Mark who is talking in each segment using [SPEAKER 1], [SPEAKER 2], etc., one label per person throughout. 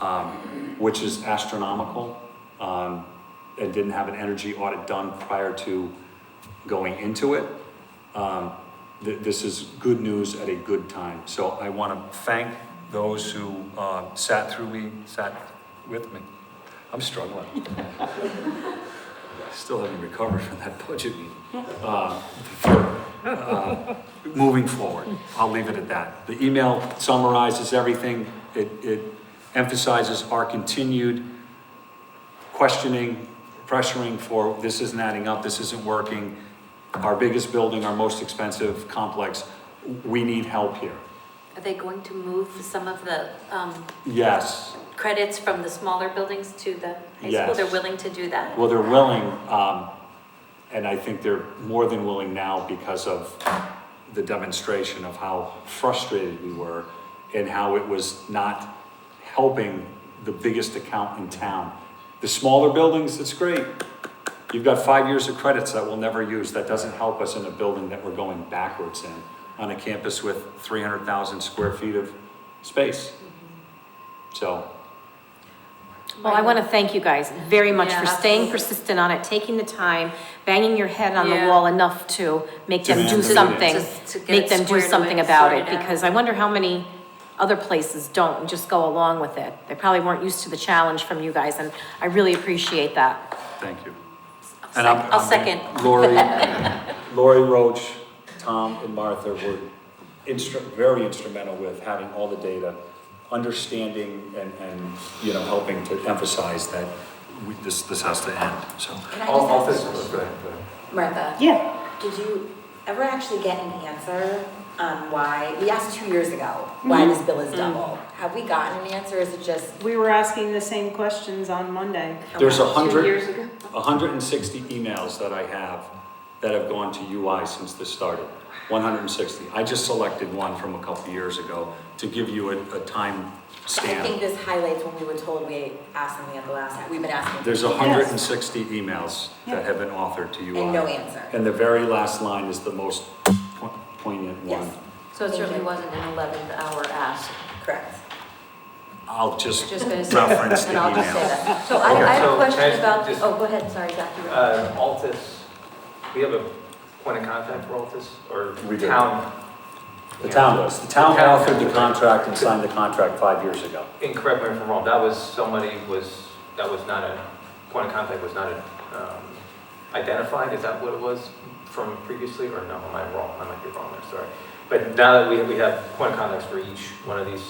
[SPEAKER 1] um, which is astronomical, um, and didn't have an energy audit done prior to going into it. Um, th- this is good news at a good time. So I want to thank those who, uh, sat through me, sat with me. I'm struggling. Still haven't recovered from that budget meeting. Uh, for, uh, Moving forward, I'll leave it at that. The email summarizes everything. It, it emphasizes our continued questioning, pressuring for, this isn't adding up, this isn't working. Our biggest building, our most expensive complex, we need help here.
[SPEAKER 2] Are they going to move some of the um,
[SPEAKER 1] Yes,
[SPEAKER 2] credits from the smaller buildings to the high school?
[SPEAKER 1] Yes.
[SPEAKER 2] They're willing to do that?
[SPEAKER 1] well, they're willing, um, and I think they're more than willing now because of the demonstration of how frustrated we were and how it was not helping the biggest account in town. The smaller buildings, it's great. You've got five years of credits that we'll never use. That doesn't help us in a building that we're going backwards in, on a campus with three hundred thousand square feet of space. So,
[SPEAKER 3] Well, Oh, I want to thank you guys very much for
[SPEAKER 2] Yeah,
[SPEAKER 3] staying
[SPEAKER 2] absolutely.
[SPEAKER 3] persistent on it, taking the time, banging your head on the
[SPEAKER 2] Yeah.
[SPEAKER 3] wall enough to make them do
[SPEAKER 1] Demand it.
[SPEAKER 3] something.
[SPEAKER 2] Just to get
[SPEAKER 3] Make
[SPEAKER 2] it
[SPEAKER 3] them do
[SPEAKER 2] squared away,
[SPEAKER 3] something about it,
[SPEAKER 2] sorted out.
[SPEAKER 3] because I wonder how many other places don't and just go along with it. They probably weren't used to the challenge from you guys, and I really appreciate that.
[SPEAKER 1] thank you.
[SPEAKER 2] I'll
[SPEAKER 1] And I'm-
[SPEAKER 2] sec- I'll
[SPEAKER 1] I'm
[SPEAKER 2] second.
[SPEAKER 1] gonna- Lori, Lori Roach, Tom and Martha were instru, very instrumental with having all the data, understanding and, and, you know, helping to emphasize that we, this, this has to end, so.
[SPEAKER 4] Can I
[SPEAKER 1] All- all
[SPEAKER 4] just ask a
[SPEAKER 1] things-
[SPEAKER 4] question?
[SPEAKER 1] go ahead,
[SPEAKER 4] Martha?
[SPEAKER 3] Yeah.
[SPEAKER 4] Did you ever actually get an answer on why, we asked two years ago,
[SPEAKER 3] Mm-hmm.
[SPEAKER 4] why this bill is double? Have we gotten an answer, is it just?
[SPEAKER 5] We were asking the same questions on Monday.
[SPEAKER 1] go ahead. There's a
[SPEAKER 5] Two
[SPEAKER 1] hundred,
[SPEAKER 5] years ago.
[SPEAKER 1] a hundred and sixty emails that I have that have gone to UI since this started. One hundred and sixty. I just selected one from a couple of years ago to give you a, a time
[SPEAKER 4] I think
[SPEAKER 1] stamp.
[SPEAKER 4] this highlights when we were told we asked something at the last, time. we've been asking.
[SPEAKER 1] There's a hundred and sixty emails that have been authored to UI.
[SPEAKER 4] And no answer.
[SPEAKER 1] And the very last line is the most po- poignant one.
[SPEAKER 4] Yes.
[SPEAKER 2] So it certainly wasn't an 11th hour ask.
[SPEAKER 4] Correct.
[SPEAKER 1] I'll just
[SPEAKER 2] Just gonna say that,
[SPEAKER 1] reference the
[SPEAKER 2] and I'll just say
[SPEAKER 1] email.
[SPEAKER 2] that. So I, I
[SPEAKER 6] Okay.
[SPEAKER 2] have
[SPEAKER 6] So
[SPEAKER 2] a
[SPEAKER 6] can I
[SPEAKER 2] question
[SPEAKER 6] just-
[SPEAKER 2] about,
[SPEAKER 6] just-
[SPEAKER 2] oh, go ahead, sorry, Dr. Rowe.
[SPEAKER 6] Uh, Altus, we have a point of contact for Altus, or
[SPEAKER 1] We do.
[SPEAKER 6] town?
[SPEAKER 1] The town does. The town authored the contract and signed the contract five years ago.
[SPEAKER 6] And correct me if I'm wrong, that was, somebody was, that was not a, point of contact was not um, identified, is that what it was from previously, or no, am I wrong? I might be wrong there, sorry. But now that we have, we have point of contacts for each one of these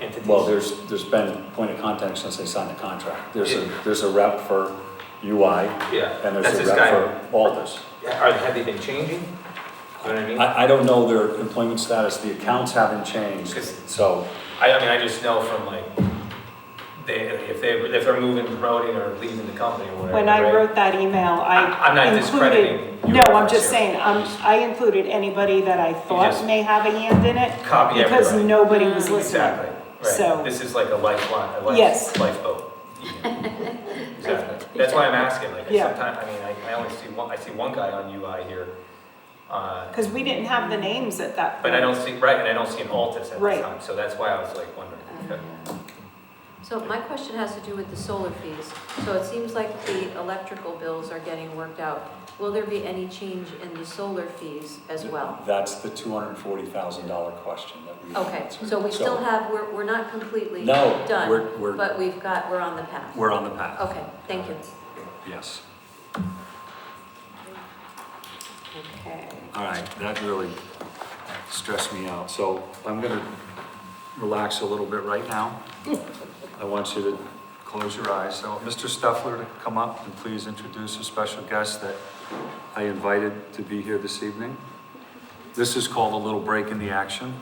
[SPEAKER 6] entities.
[SPEAKER 1] Well, there's, there's been point of contact since they signed the contract. There's a, there's a rep for UI
[SPEAKER 6] Yeah,
[SPEAKER 1] and there's
[SPEAKER 6] that's
[SPEAKER 1] a
[SPEAKER 6] this guy.
[SPEAKER 1] rep for Aldus.
[SPEAKER 6] Are, have they been changing? You know what I mean?
[SPEAKER 1] I, I don't know their employment status. The accounts haven't changed,
[SPEAKER 6] Because-
[SPEAKER 1] so.
[SPEAKER 6] I, I mean, I just know from like, they, if they, if they're moving, promoting, or leaving the company or whatever.
[SPEAKER 5] When I
[SPEAKER 6] right?
[SPEAKER 5] wrote that email,
[SPEAKER 6] I- I'm
[SPEAKER 5] I
[SPEAKER 6] not
[SPEAKER 5] included.
[SPEAKER 6] discrediting your
[SPEAKER 5] No, I'm
[SPEAKER 6] efforts
[SPEAKER 5] just
[SPEAKER 6] here.
[SPEAKER 5] saying, um, I included anybody that I
[SPEAKER 6] just-
[SPEAKER 5] thought may have a hand in it.
[SPEAKER 6] Copy
[SPEAKER 5] Because
[SPEAKER 6] everybody.
[SPEAKER 5] nobody was
[SPEAKER 6] Mm.
[SPEAKER 5] listening.
[SPEAKER 6] Exactly,
[SPEAKER 5] So-
[SPEAKER 6] right. This is like a lifeline, a
[SPEAKER 5] Yes.
[SPEAKER 6] life, lifeboat. Exactly. That's why I'm asking, like,
[SPEAKER 5] Yeah.
[SPEAKER 6] sometimes, I mean, I, I only see one, I see one guy on UI here. uh,
[SPEAKER 5] Because we didn't have the names at that point.
[SPEAKER 6] But I don't see, right, and I don't see an Altus at the
[SPEAKER 5] Uh-huh. Right.
[SPEAKER 6] time, so that's why I was like wondering.
[SPEAKER 2] Uh-huh.
[SPEAKER 6] okay.
[SPEAKER 2] So my question has to do with the solar fees. So it seems like the electrical bills are getting worked out. Will there be any change in the solar fees as well?
[SPEAKER 1] That's the two hundred and forty thousand dollar question that we.
[SPEAKER 2] Okay, so we still have, we're, we're not completely
[SPEAKER 1] No,
[SPEAKER 2] done,
[SPEAKER 1] we're- we're-
[SPEAKER 2] but we've got, we're on the path.
[SPEAKER 1] We're on the path,
[SPEAKER 2] Okay, thank you.
[SPEAKER 1] yes.
[SPEAKER 3] Okay.
[SPEAKER 1] All right, that really stressed me out, so I'm gonna relax a little bit right now. I want you to close your eyes, so Mr. Stuffler to come up and please introduce a special guest that I invited to be here this evening. This is called a little break in the action,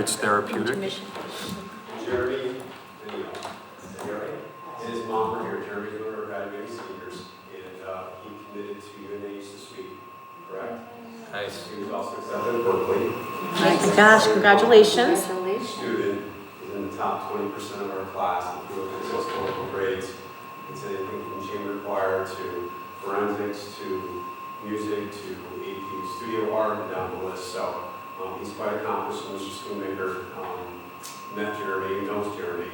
[SPEAKER 1] it's therapeutic.
[SPEAKER 2] Intermission.
[SPEAKER 7] Jeremy, Daniel. Jeremy, and his mom were here, Jeremy's one of our graduating seniors, and uh, he committed to UNH this week, correct?
[SPEAKER 6] Nice.
[SPEAKER 7] He was also accepted at Berkeley,
[SPEAKER 3] Gosh, congratulations.
[SPEAKER 2] Congratulations.
[SPEAKER 7] student, is in the top twenty percent of our class, if you look at his historical grades. It's anything from chamber choir to forensics to music to AP studio art and down the list, so um, he's quite accomplished, and Mr. Schoonmaker um, met Jeremy, knows Jeremy,